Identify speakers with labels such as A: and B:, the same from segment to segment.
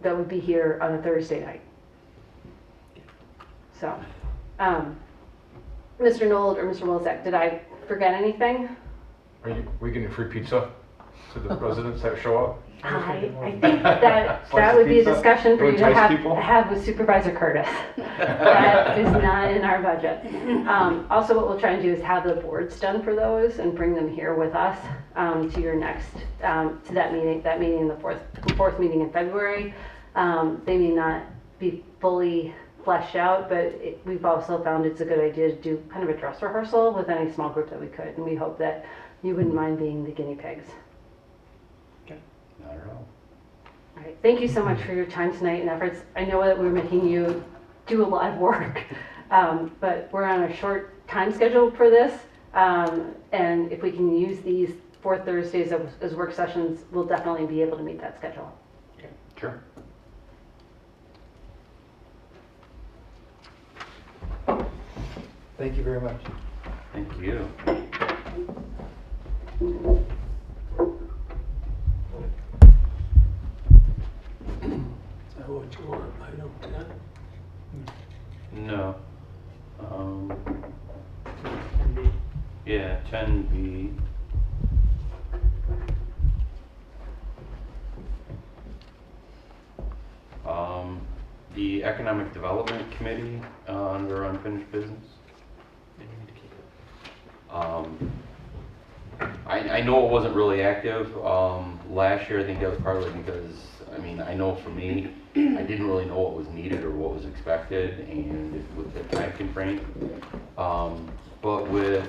A: that would be here on a Thursday night. So, um, Mr. Nold or Mr. Wilczek, did I forget anything?
B: Are you, we getting free pizza to the residents that show up?
A: I, I think that that would be a
B: Slice of pizza
A: discussion for
B: to
A: you to
B: entice
A: have,
B: people?
A: have with Supervisor Curtis. That is not in our budget. Um, also, what we'll try and do is have the boards done for those and bring them here with us, um, to your next, um, to that meeting, that meeting, the fourth, fourth meeting in February. Um, they may not be fully fleshed out, but it, we've also found it's a good idea to do kind of a dress rehearsal with any small group that we could, and we hope that you wouldn't mind being the guinea pigs.
C: Not at all.
A: All right, thank you so much for your time tonight and efforts. I know that we're making you do a lot of work, um, but we're on a short time schedule for this. Um, and if we can use these four Thursdays as, as work sessions, we'll definitely be able to meet that schedule.
B: Sure.
D: Thank you very much.
C: Thank you.
E: Oh, it's warrant item ten,
C: No. Um,
E: ten B.
C: yeah, ten B. Um, the Economic Development Committee, uh, under unfinished business. Um, I, I know it wasn't really active, um, last year, I think that was partly because, I mean, I know for me, I didn't really know what was needed or what was expected, and with the time constraint. Um, but with,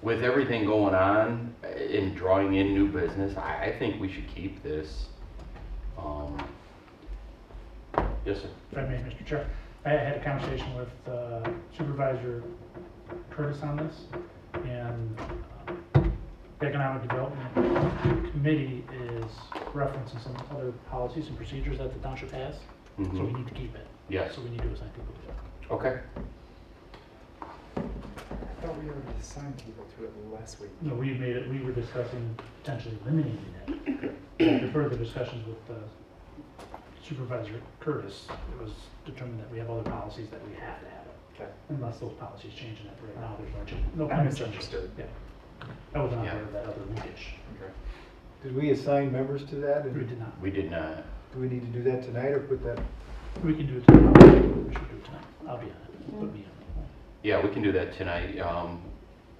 C: with everything going on and drawing in new business, I, I think we should keep this. Um, Yes, sir.
F: If I may, Mr. Chair, I had a conversation with uh, Supervisor Curtis on this, and um, the Economic Development Committee is referencing some other policies and procedures that the township has, so we
C: Mhm.
F: need to keep it.
C: Yes,
F: So we need to assign people to it.
C: okay.
D: I thought we already assigned people to it last week.
F: No, we made it, we were discussing potentially eliminating it. After further discussions with uh, Supervisor Curtis, it was determined that we have other policies that we have to have.
D: Okay.
F: Unless those policies change, and that right now, there's no change. no
D: I
F: plan
D: misunderstood.
F: Yeah. I was not
C: Yeah.
F: aware of that other linkage.
D: Did we assign members to that?
F: We
D: And
F: did not.
C: We did not.
D: do we need to do that tonight or put that?
F: We can do it tonight. We should do it tonight. I'll be on it. Put me on
C: Yeah, we can do that tonight. Um,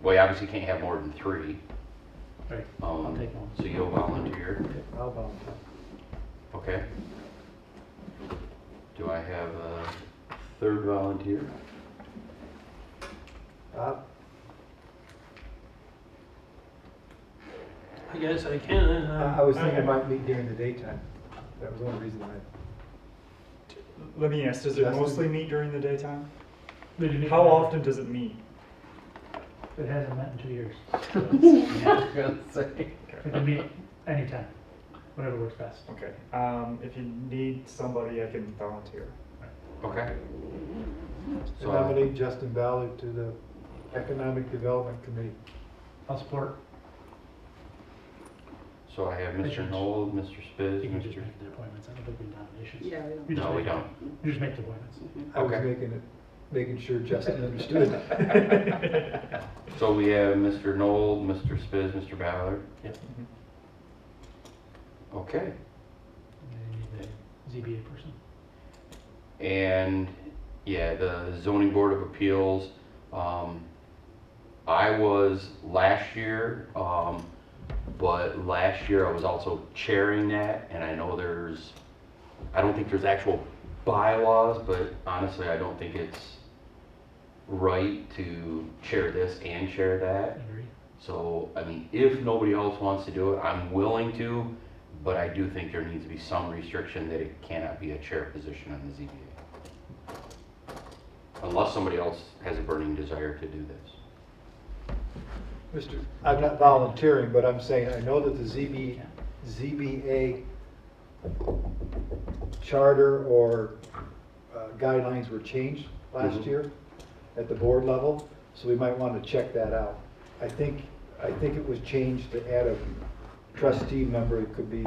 C: well, you obviously can't have more than three.
F: it. Right.
C: Um,
F: I'll take one.
C: So you'll volunteer,
D: I'll volunteer.
C: okay? Do I have a third volunteer?
D: Bob?
E: I guess I can, and,
D: I
E: uh.
D: I was thinking it might meet during the daytime. That was the only reason I.
G: Let me ask, does it
D: Justin?
G: mostly meet during the daytime?
F: They didn't-
G: How often does it meet?
F: It hasn't met in two years.
C: say.
F: It can meet anytime, whatever works best.
G: Okay, um, if you need somebody, I can volunteer.
C: Okay.
D: I nominate Justin Ballard to the Economic Development Committee.
F: I'll support.
C: So I have Mr. Knoll, Mr.
F: You
C: Spiz,
F: can just
C: Mr.
F: make the appointments. I don't think we need nominations.
H: Yeah,
F: You just
C: No, we
F: make-
C: don't.
F: You just make the appointments.
D: I was
C: Okay.
D: making it, making sure Justin understood.
C: So we have Mr. Knoll, Mr. Spiz, Mr. Ballard.
F: Yep.
C: Okay,
F: And then you need the ZBA person.
C: and yeah, the zoning board of appeals. Um, I was last year, um, but last year I was also chairing that, and I know there's, I don't think there's actual bylaws, but honestly, I don't think it's right to chair this and chair that.
F: Agree?
C: So, I mean, if nobody else wants to do it, I'm willing to, but I do think there needs to be some restriction that it cannot be a chair position on the ZBA. Unless somebody else has a burning desire to do this.
D: Mr. I'm not volunteering, but I'm saying, I know that the ZB, ZBA charter or uh, guidelines were changed last
C: Mhm.
D: year at the board level, so we might want to check that out. I think, I think it was changed to add a trustee member, it could be